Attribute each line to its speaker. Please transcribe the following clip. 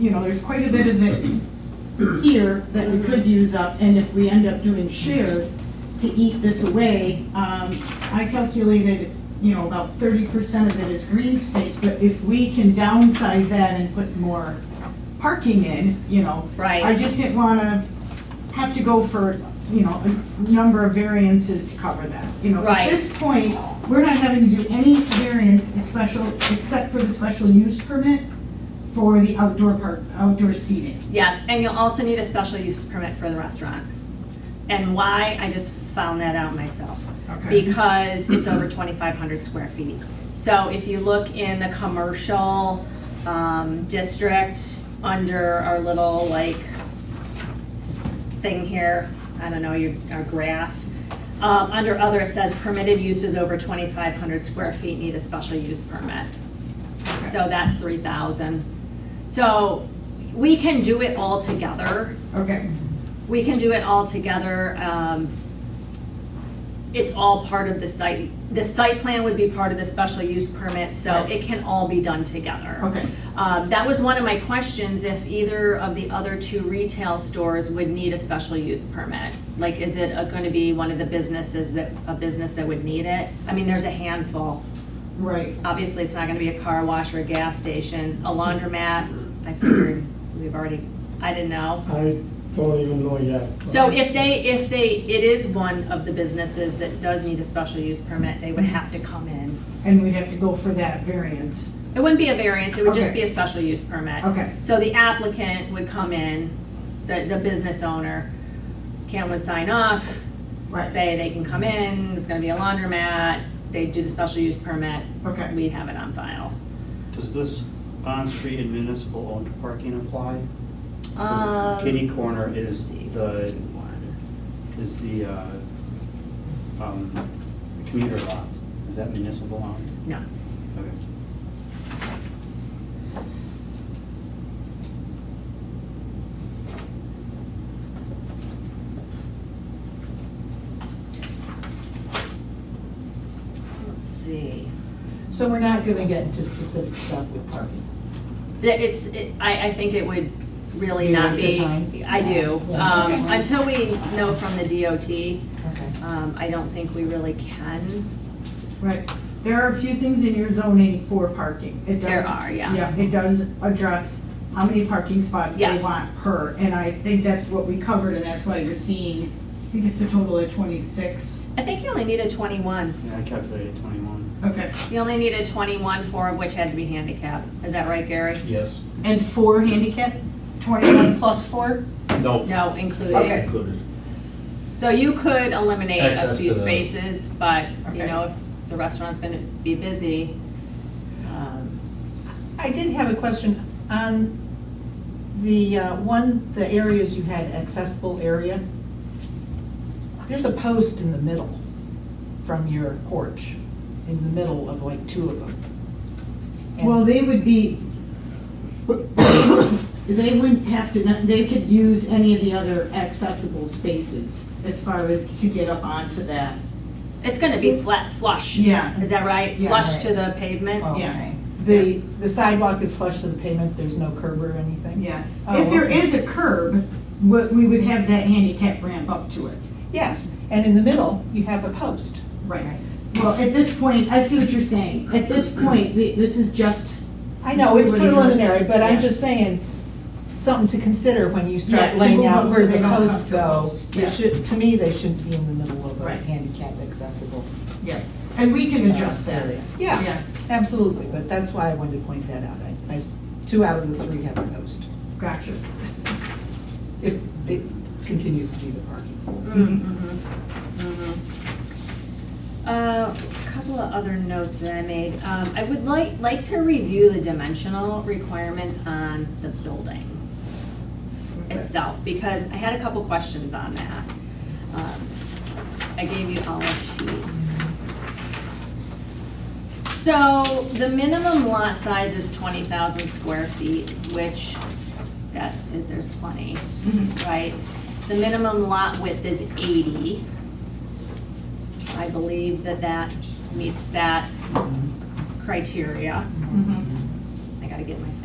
Speaker 1: you know, there's quite a bit of it here that we could use up, and if we end up doing shared, to eat this away, um, I calculated, you know, about thirty percent of it is green space, but if we can downsize that and put more parking in, you know.
Speaker 2: Right.
Speaker 1: I just didn't wanna have to go for, you know, a number of variances to cover that, you know.
Speaker 2: Right.
Speaker 1: At this point, we're not having to do any variance, it's special, except for the special use permit for the outdoor park, outdoor seating.
Speaker 2: Yes, and you'll also need a special use permit for the restaurant. And why, I just found that out myself.
Speaker 1: Okay.
Speaker 2: Because it's over 2,500 square feet. So if you look in the commercial um, district, under our little like thing here, I don't know, your, our graph, um, under other, it says permitted uses over 2,500 square feet need a special use permit. So that's three thousand. So we can do it all together.
Speaker 1: Okay,
Speaker 2: We can do it all together. Um, It's all part of the site. The site plan would be part of the special use permit, so
Speaker 1: Right.
Speaker 2: it can all be done together.
Speaker 1: okay.
Speaker 2: Um, That was one of my questions, if either of the other two retail stores would need a special use permit. Like, is it going to be one of the businesses that, a business that would need it? I mean, there's a handful.
Speaker 1: Right,
Speaker 2: Obviously, it's not gonna be a car wash or a gas station, a laundromat, I figured we've already, I didn't know.
Speaker 3: I don't even know yet.
Speaker 2: So if they, if they, it is one of the businesses that does need a special use permit, they would have to come in.
Speaker 1: and we'd have to go for that variance.
Speaker 2: It wouldn't be a variance, it would just
Speaker 1: Okay.
Speaker 2: be a special use permit.
Speaker 1: Okay.
Speaker 2: So the applicant would come in, the, the business owner, Cam would sign off,
Speaker 1: Right,
Speaker 2: say they can come in, there's gonna be a laundromat, they do the special use permit,
Speaker 1: okay.
Speaker 2: we'd have it on file.
Speaker 4: Does this on-street and municipal-owned parking apply?
Speaker 2: Um,
Speaker 4: Kitty corner
Speaker 2: let's
Speaker 4: is
Speaker 2: see,
Speaker 4: the-
Speaker 2: 51.
Speaker 4: Is the uh, um, commuter lot, is that municipal-owned?
Speaker 2: No.
Speaker 4: Okay.
Speaker 2: Let's see.
Speaker 5: So we're not gonna get into specific stuff with parking.
Speaker 2: That it's, it- I, I think it would really
Speaker 5: You
Speaker 2: not
Speaker 5: waste
Speaker 2: be.
Speaker 5: your time?
Speaker 2: I do.
Speaker 5: Yeah.
Speaker 2: Um,
Speaker 5: Okay.
Speaker 2: Until we know from the DOT,
Speaker 5: Okay.
Speaker 2: um, I don't think we really can.
Speaker 1: Right. There are a few things in your zoning for parking. It does-
Speaker 2: There are, yeah.
Speaker 1: Yeah, it does address how many parking spots they
Speaker 2: Yes.
Speaker 1: want per, and I think that's what we covered, and that's why you're seeing, I think it's a total of twenty-six.
Speaker 2: I think you only needed twenty-one.
Speaker 4: Yeah, I calculated 21.
Speaker 1: Okay.
Speaker 2: You only needed twenty-one, four of which had to be handicapped. Is that right, Gary?
Speaker 6: Yes,
Speaker 1: And four handicap, twenty-one plus four?
Speaker 6: no,
Speaker 2: No, including.
Speaker 6: not included.
Speaker 2: So you could eliminate a
Speaker 6: Access
Speaker 2: few
Speaker 6: to the-
Speaker 2: spaces, but, you
Speaker 1: Okay.
Speaker 2: know, if the restaurant's gonna be busy, um,
Speaker 5: I did have a question on the uh, one, the areas you had accessible area. There's a post in the middle from your porch, in the middle of like two of them. And-
Speaker 1: Well, they would be, they wouldn't have to, they could use any of the other accessible spaces as far as to get up onto that.
Speaker 2: It's gonna be flat, flush.
Speaker 1: Yeah.
Speaker 2: Is that right?
Speaker 1: Yeah.
Speaker 2: Flush to the pavement?
Speaker 5: Oh,
Speaker 1: yeah.
Speaker 5: okay. The, the sidewalk is flush to the pavement, there's no curb or anything?
Speaker 1: Yeah,
Speaker 5: Oh,
Speaker 1: if there
Speaker 5: okay.
Speaker 1: is a curb, we we would have that handicap ramp up to it.
Speaker 5: Yes, and in the middle, you have a post.
Speaker 1: Right. Well, at this point, I see what you're saying. At this point, the- this is just,
Speaker 5: I know, it's
Speaker 1: Nobody knows that.
Speaker 5: preliminary, but
Speaker 1: Yeah.
Speaker 5: I'm just saying, something to consider when you
Speaker 1: Yeah,
Speaker 5: start
Speaker 1: to
Speaker 5: laying
Speaker 1: move
Speaker 5: out
Speaker 1: them so
Speaker 5: where
Speaker 1: they
Speaker 5: the
Speaker 1: don't have
Speaker 5: posts
Speaker 1: to
Speaker 5: go.
Speaker 1: post,
Speaker 5: They
Speaker 1: yeah.
Speaker 5: should, to me, they shouldn't be in the middle of a
Speaker 1: Right.
Speaker 5: handicap accessible.
Speaker 1: yeah, and we can
Speaker 5: uh,
Speaker 1: adjust that.
Speaker 5: area. Yeah, absolutely, but that's why I wanted to point that out. I- I s- Two out of the three have a post,
Speaker 1: Gotcha.
Speaker 5: if it continues to be the parking.
Speaker 2: Mm, mhm,
Speaker 1: mm-hmm.
Speaker 2: mhm. Uh, A couple of other notes that I made. Um, I would like, like to review the dimensional requirements on the building itself, because I had a couple questions on that. Um, I gave you all a sheet. So the minimum lot size is 20,000 square feet, which that, there's plenty
Speaker 1: Mhm.
Speaker 2: right? The minimum lot width is 80. I believe that that meets that criteria.
Speaker 1: Mhm.
Speaker 2: I gotta get my